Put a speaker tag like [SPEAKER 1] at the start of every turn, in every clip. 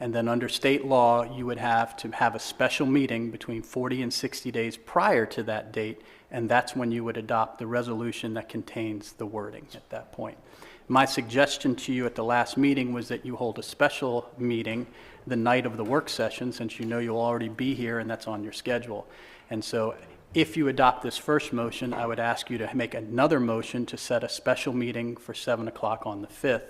[SPEAKER 1] And then under state law, you would have to have a special meeting between 40 and 60 days prior to that date, and that's when you would adopt the resolution that contains the wording at that point. My suggestion to you at the last meeting was that you hold a special meeting the night of the work session, since you know you'll already be here and that's on your schedule. And so if you adopt this first motion, I would ask you to make another motion to set a special meeting for 7 o'clock on the 5th,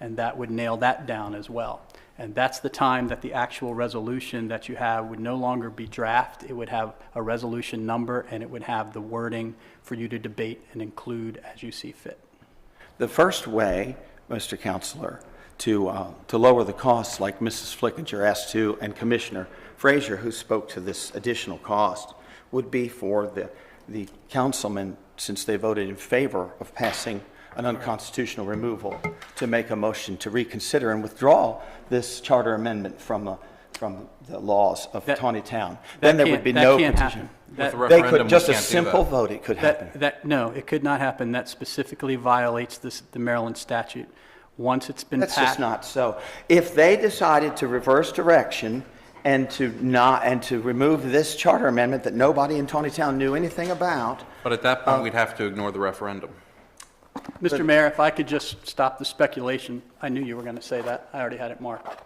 [SPEAKER 1] and that would nail that down as well. And that's the time that the actual resolution that you have would no longer be draft. It would have a resolution number, and it would have the wording for you to debate and include as you see fit.
[SPEAKER 2] The first way, Mr. Counselor, to, uh, to lower the costs, like Mrs. Flickinger asked to, and Commissioner Frazier, who spoke to this additional cost, would be for the, the councilmen, since they voted in favor of passing an unconstitutional removal, to make a motion to reconsider and withdraw this charter amendment from, uh, from the laws of
[SPEAKER 1] That-
[SPEAKER 2] Tawny Town. Then there would
[SPEAKER 1] can't-
[SPEAKER 2] be
[SPEAKER 1] that
[SPEAKER 2] no
[SPEAKER 1] can't
[SPEAKER 2] petition.
[SPEAKER 1] happen. That-
[SPEAKER 3] With a
[SPEAKER 2] They
[SPEAKER 3] Referendum,
[SPEAKER 2] could,
[SPEAKER 3] we
[SPEAKER 2] just a
[SPEAKER 3] can't do
[SPEAKER 2] simple
[SPEAKER 3] that.
[SPEAKER 2] vote, it could happen.
[SPEAKER 1] That, that, no, it could not happen. That specifically violates this, the Maryland statute. Once it's been
[SPEAKER 2] That's just
[SPEAKER 1] passed,
[SPEAKER 2] not so. If they decided to reverse direction and to not, and to remove this charter amendment that nobody in Tawny Town knew anything about,
[SPEAKER 3] But at that point, we'd have to ignore the referendum.
[SPEAKER 1] Mr. Mayor, if I could just stop the speculation, I knew you were going to say that. I already had it marked.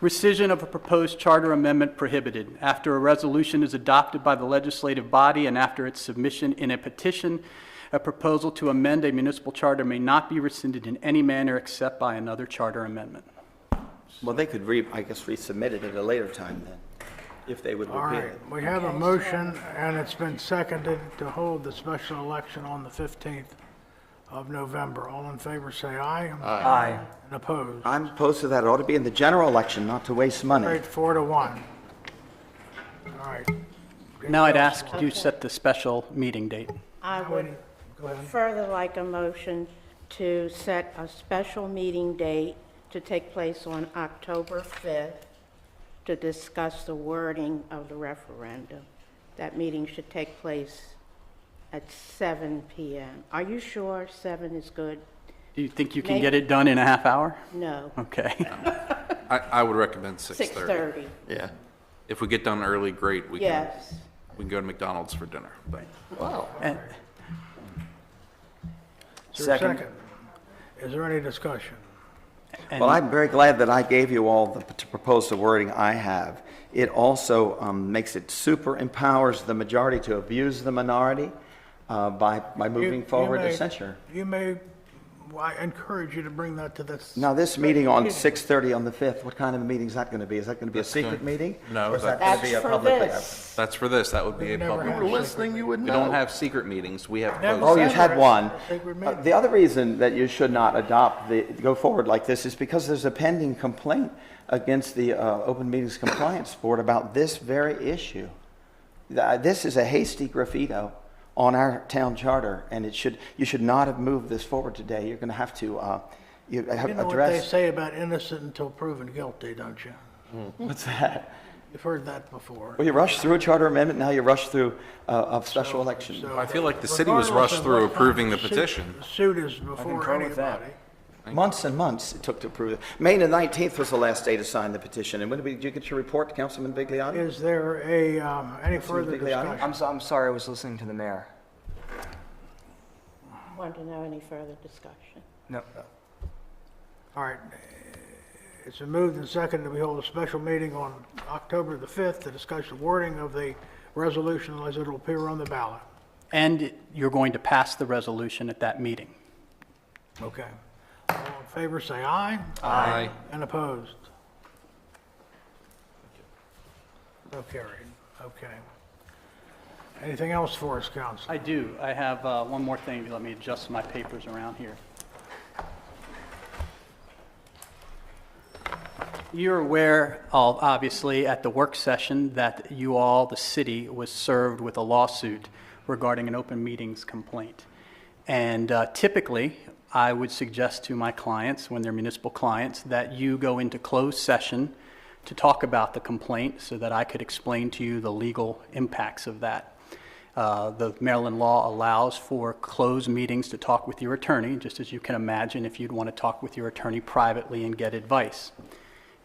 [SPEAKER 1] Rescission of a proposed charter amendment prohibited. After a resolution is adopted by the legislative body and after its submission in a petition, a proposal to amend a municipal charter may not be rescinded in any manner except by another charter amendment.
[SPEAKER 2] well, they could re, I guess, resubmit it at a later time then, if they would
[SPEAKER 4] All
[SPEAKER 2] repeal it.
[SPEAKER 4] right, we have a motion, and it's been seconded to hold the special election on the 15th of November. All in favor, say aye. Aye. And opposed?
[SPEAKER 2] I'm opposed to that. It ought to be in the general election, not to waste money.
[SPEAKER 4] Great, four to one. All right.
[SPEAKER 1] Now I'd ask you set the special meeting date.
[SPEAKER 5] I would
[SPEAKER 4] Go ahead.
[SPEAKER 5] further like a motion to set a special meeting date to take place on October 5th to discuss the wording of the referendum. That meeting should take place at 7 PM. Are you sure 7 is good?
[SPEAKER 1] Do you think you can
[SPEAKER 5] May-
[SPEAKER 1] get it done in a half hour?
[SPEAKER 5] No,
[SPEAKER 1] Okay.
[SPEAKER 3] I, I would recommend 6:30.
[SPEAKER 5] 6:30,
[SPEAKER 3] Yeah. If we get done early, great. We can,
[SPEAKER 5] yes.
[SPEAKER 3] we can go to McDonald's for dinner. But
[SPEAKER 1] And-
[SPEAKER 4] Is there a second? Is there any discussion?
[SPEAKER 2] Well, I'm very glad that I gave you all the, to propose the wording I have. It also um, makes it super empowers the majority to abuse the minority uh, by, by
[SPEAKER 4] You-
[SPEAKER 2] moving
[SPEAKER 4] you
[SPEAKER 2] forward to
[SPEAKER 4] may-
[SPEAKER 2] censure.
[SPEAKER 4] You may, well, I encourage you to bring that to this.
[SPEAKER 2] Now, this meeting on 6:30 on the 5th, what kind of a meeting is that going to be? Is that going to be a secret
[SPEAKER 3] gonna-
[SPEAKER 2] meeting?
[SPEAKER 3] No,
[SPEAKER 2] Or is that going
[SPEAKER 3] that's-
[SPEAKER 2] to
[SPEAKER 5] That's
[SPEAKER 2] be a
[SPEAKER 5] for
[SPEAKER 2] public?
[SPEAKER 5] this.
[SPEAKER 3] that's for this. That would be a
[SPEAKER 4] never
[SPEAKER 3] public.
[SPEAKER 4] had a You were secret
[SPEAKER 3] listening, you would know. We don't have secret meetings. We have
[SPEAKER 4] Never
[SPEAKER 2] Oh,
[SPEAKER 3] closed.
[SPEAKER 4] said-
[SPEAKER 2] you've had
[SPEAKER 4] Secret-
[SPEAKER 2] one.
[SPEAKER 4] secret
[SPEAKER 2] Uh,
[SPEAKER 4] meeting.
[SPEAKER 2] The other reason that you should not adopt the, go forward like this is because there's a pending complaint against the uh, Open Meetings Compliance Board about this very issue. Th- uh, This is a hasty graffito on our town charter, and it should, you should not have moved this forward today. You're going to have to, uh, you have
[SPEAKER 4] You know what they
[SPEAKER 2] addressed.
[SPEAKER 4] say about innocent until proven guilty, don't you?
[SPEAKER 2] What's that?
[SPEAKER 4] You've heard that before.
[SPEAKER 2] Well, you rushed through a charter amendment, now you rush through uh, a special election.
[SPEAKER 3] I feel like the city was rushed through approving the petition.
[SPEAKER 4] Suit is before
[SPEAKER 1] concur with that.
[SPEAKER 4] anybody.
[SPEAKER 2] Months and months it took to approve it. May the 19th was the last day to sign the petition. And when did, we, did you get your report, Councilman Bigliotti?
[SPEAKER 4] Is there a, um, any further
[SPEAKER 2] Completely out.
[SPEAKER 4] discussion?
[SPEAKER 6] I'm, so- I'm sorry, I was listening to the mayor.
[SPEAKER 5] Want to know any further discussion?
[SPEAKER 6] No,
[SPEAKER 4] All right. It's been moved and seconded that we hold a special meeting on October the 5th to discuss the wording of the resolution as it will appear on the ballot.
[SPEAKER 1] And you're going to pass the resolution at that meeting.
[SPEAKER 4] Okay. All in favor, say aye.
[SPEAKER 3] Aye.
[SPEAKER 4] And opposed? So carried. Okay. Anything else for us, council?
[SPEAKER 1] I do. I have uh, one more thing. Let me adjust my papers around here. You're aware, of, obviously, at the work session that you all, the city, was served with a lawsuit regarding an open meetings complaint. And uh, typically, I would suggest to my clients, when they're municipal clients, that you go into closed session to talk about the complaint so that I could explain to you the legal impacts of that. Uh, The Maryland law allows for closed meetings to talk with your attorney, just as you can imagine if you'd want to talk with your attorney privately and get advice.